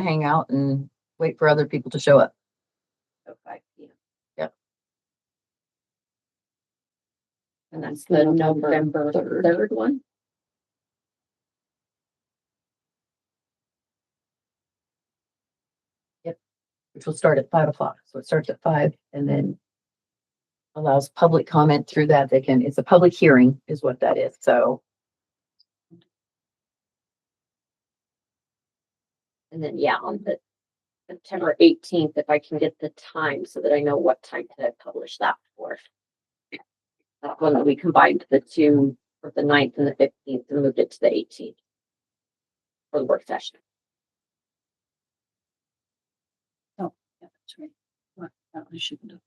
hang out and wait for other people to show up. at Oh, five P M. Yep. And that's the November third one? which will start at five o'clock. So it starts at five and then allows public comment through that. They can, it's a public hearing is what that is. So And then, yeah, on the September eighteenth, if I can get the time so that I know what time to publish that for. That one that we combined the two for the ninth and the fifteenth and moved it to the eighteenth. For the work session. Oh, Yeah, that's right. What, that one I shouldn't have.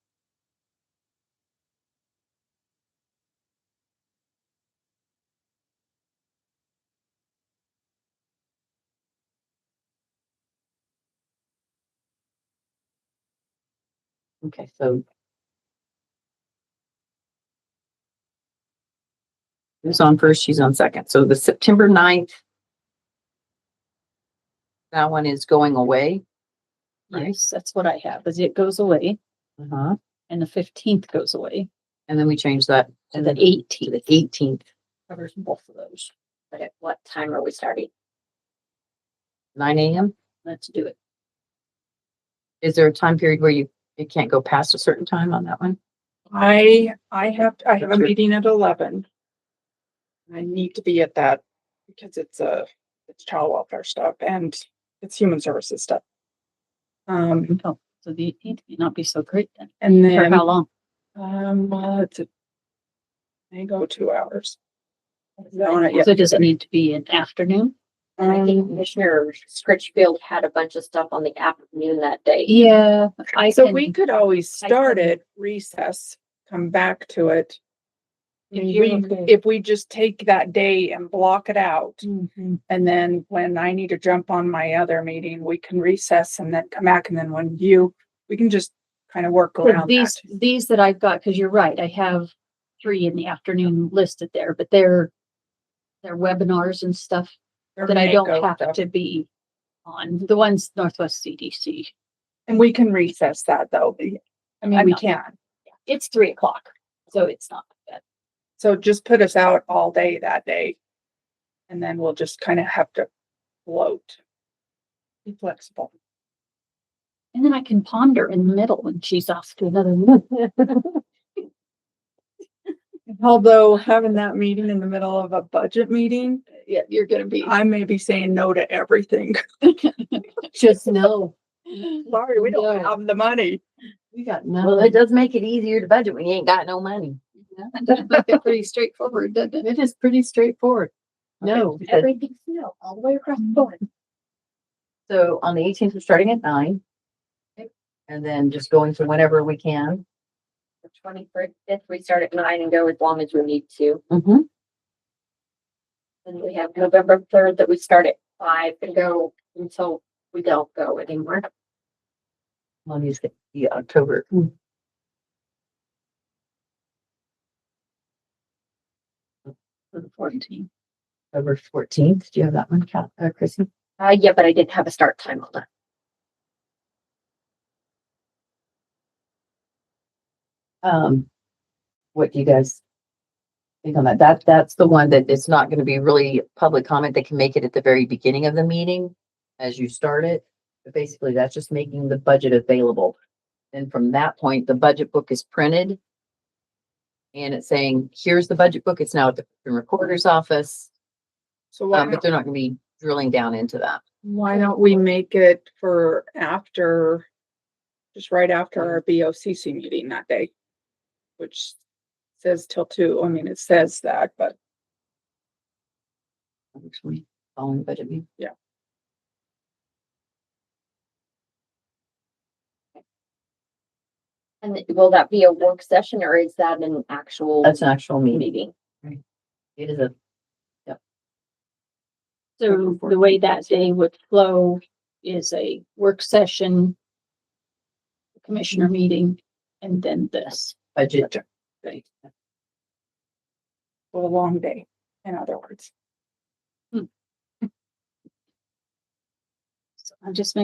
Okay, so. Who's on first? She's on second. So the September 9th. That one is going away. Right. Yes, that's what I have, is it goes away Uh-huh. and the fifteenth goes away And then we change that to and the the eighteenth eighteenth, covers both of those. But at what time are we starting? nine AM. Let's do it. Is there a time period where you, it can't go past a certain time on that one? I, I have, I have a That's it. meeting at eleven. I need to be at that because it's a, it's child welfare stuff and it's human services stuff. Um, Oh, so the eighteenth may not be so great then. and For then, how long? um, well, it's a, they go two hours. Yeah. So does it need to be an afternoon? I think Um, Commissioner Scritchfield had a bunch of stuff on the afternoon that day. Yeah, I so we can, could always I start can- it recess, come back to it. I If mean, you're We, okay. if we just take that day and block it out. Mhm. And then when I need to jump on my other meeting, we can recess and then come back. And then when you, we can just kind of work But around these, that. these that I've got, because you're right, I have three in the afternoon listed there, but they're they're webinars and stuff They're that I Mako don't have stuff. to be on, the ones Northwest CDC. And we can recess that though. I mean, I'm we not- can. It's three o'clock, so it's not bad. So just put us out all day that day. And then we'll just kind of have to float. Be flexible. And then I can ponder in the middle when she's off to another one. Although having that meeting in the middle of a budget meeting, Yeah, you're gonna be. I may be saying no to everything. Just know. Sorry, we don't No. have the money. We got Well, it does make it easier to budget when you ain't got no money. Pretty straightforward, doesn't it? It is pretty straightforward. No, Okay. everything's no, all the way across the board. So on the eighteenth, we're starting at nine. And then just going to whenever we can. The twenty-fifth, we start at nine and go as long as we need to. Mm-hmm. And we have November third that we start at five and go until we don't go anymore. I'll use the- the October. For the fourteen. October fourteenth. Do you have that one, Kat, uh, Chrissy? Uh, yeah, but I didn't have a start time on that. Um, what do you guys think on that? That, that's the one that it's not gonna be really public comment. They can make it at the very beginning of the meeting as you start it. But basically, that's just making the budget available. And from that point, the budget book is printed. And it's saying, here's the budget book. It's now at the recorder's office, So why uh, don't but they're not gonna be drilling down into that. Why don't we make it for after, just right after our BOCC meeting that day? Which says till two, I mean, it says that, but Actually, following the budget meeting. Yeah. And th- will that be a work session or is that an actual That's an actual meeting. meeting? It is a, So the way that day would flow is a work session, commissioner meeting, and then this. budget. a long day, in other words. So I'm just making